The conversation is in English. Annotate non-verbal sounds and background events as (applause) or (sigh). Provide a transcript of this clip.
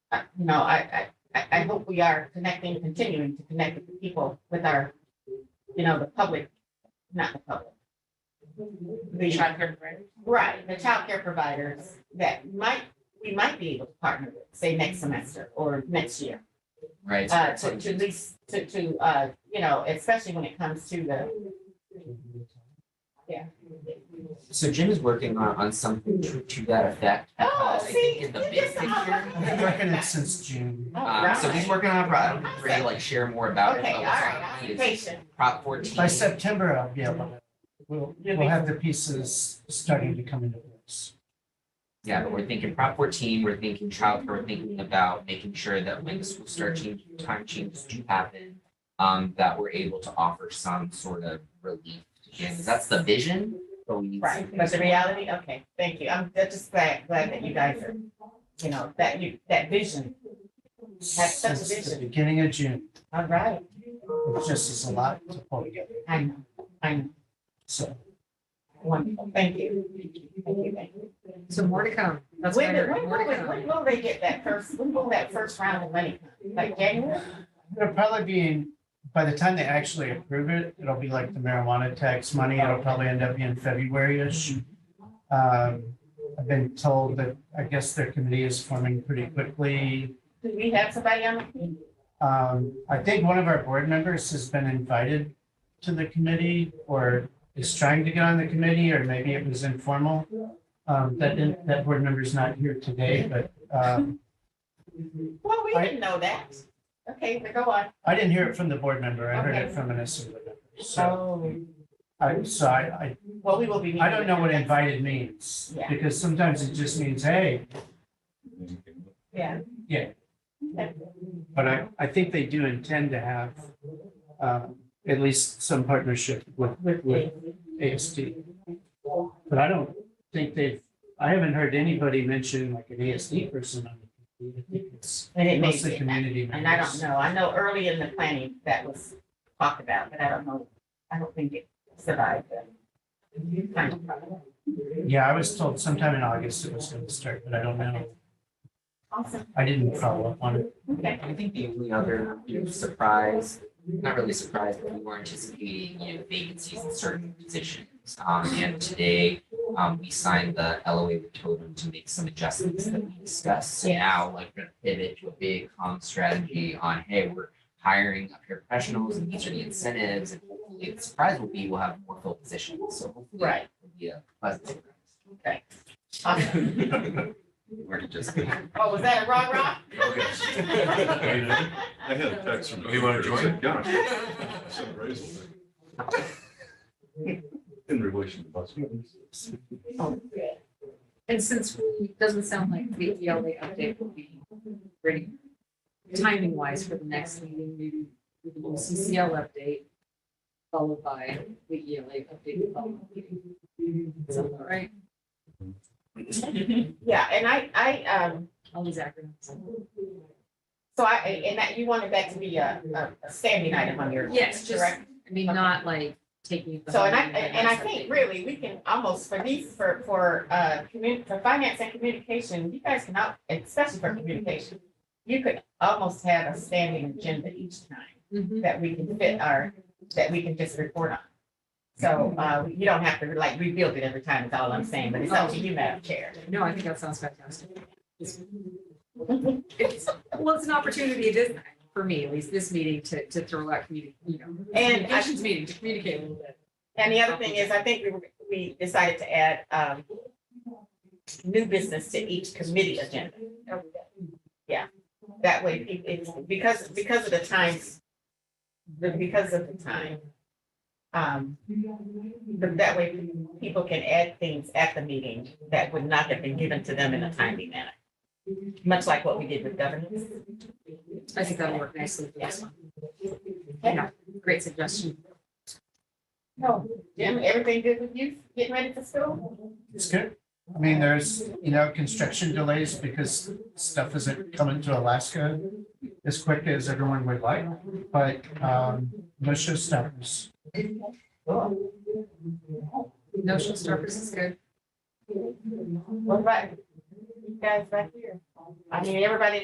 I- uh, you know, I, I, I, I hope we are connecting, continuing to connect with the people, with our, you know, the public, not the public. The, Childcare provider. right, the childcare providers that might, we might be able to partner with, say, next semester or next year. Right. Uh, to, to at least, to, to, uh, you know, especially when it comes to the, Yeah. So Jim is working on, on something to, to that effect. because oh, I see. think In the you big just- picture. I've been working it since June. All Um, so he's right. working on a product, I'm ready to like share more about it. Okay, but all what's on right, the I'm plate is patient. Prop fourteen. By September, I'll be able to, we'll, we'll have the pieces starting to come into place. Yeah, but we're thinking Prop fourteen, we're thinking childcare, we're thinking about making sure that when the school start change, time changes do happen. Um, that we're able to offer some sort of relief to kids, that's the vision, but we need. Right, some but the things. reality, okay, thank you. I'm I'm just glad, glad that you guys are, you know, that you, that vision. That's such a Since the vision. beginning of June, All right, it just is a lot to pull together, I know, I know. so. Wonderful, thank you. Thank you, thank you. So more to come. That's what I When, did- heard, when, more will to we- come. when will they get that first, when will that first round of money, come? like January? It'll probably be, in- by the time they actually approve it, it'll be like the marijuana tax money, it'll probably end up being February-ish. Um, I've been told that, I guess their committee is forming pretty quickly. Do we have somebody on? Um, I think one of our board members has been invited to the committee or is trying to get on the committee, or maybe it was informal. Um, that, didn't- that board member's not here today, but, um, Well, we I- didn't know that. Okay, but go on. I didn't hear it from the board member. I heard it Okay. from an assembly member. So So, I, so I, well, we will be. I, I don't meeting know what with them. invited means. Yeah. Because sometimes it just means, hey, Yeah. Yeah. Okay. but I, I think they do intend to have, um, at least some partnership with, With with the, ASD. But I don't think they've, I haven't heard anybody mention like an ASD person on the. committee. I think it's and it may Mostly be. community And I don't members. know, I know early in the planning that was talked about, but I don't know, I don't think it survived the kind of problem. Yeah, I was told sometime in August it was gonna start, but I don't know. Awesome, I didn't follow up on it. okay. I think the only other, you know, surprise, not really surprise, but we were anticipating, you know, vacancies in certain positions. Um, and today, um, we signed the LOA with Totem to make some adjustments that we discussed. So Yes. now, like, we're gonna pivot to a big comm strategy on, hey, we're hiring up here professionals and these are the incentives. And hopefully, the surprise will be we'll have more filled positions, so hopefully. Right. it'll be a pleasant surprise. Awesome. We're just. Oh, was that a rah rah? I had a text from. Oh, you wanna join? Yeah. Some appraisal (laughs) thing. In relation to bus. Oh, good. And since it doesn't sound like the ELA update will be ready, timing wise for the next meeting, maybe we can do a CCL update followed by the ELA update. following the meeting. Sound about right? (laughs) Yeah, and I, I, um, All these acronyms. so I, and that, you wanted that to be a, a- a standing item on your. Yes, just, correct? I mean, not like taking. the So, whole and I, meeting, but and I just think updating. really, we can almost, for these, for, for, uh, commu, for finance and communication, you guys can out, especially for communication. You could almost have a standing agenda each time Mhm. that we can fit our, that we can just report on. So, uh, you don't have to like rebuild it every time, is all I'm saying, but it's up to you, Madam Chair. No, I think that sounds fantastic. It's- it's- Well, it's an opportunity, it is, for me at least, this meeting to, to throw out community, you know. And I- Communications meeting to communicate a little bit. And the other thing is, I think we, were- we decided to add, um, new business to each committee agenda. Yeah, that way, it- it's, because, because of the times, the- because of the time. Um, but that way, people can add things at the meeting that would not have been given to them in a timely manner. Much like what we did with governance. I think that'll work nicely for this one. Yeah, great suggestion. No, Oh, Jim, everything good with you, getting ready for school? It's good. I mean, there's, you know, construction delays because stuff isn't coming to Alaska as quick as everyone would like, but, um, no showstoppers. Cool. No showstoppers is good. What about you guys back here? I mean, everybody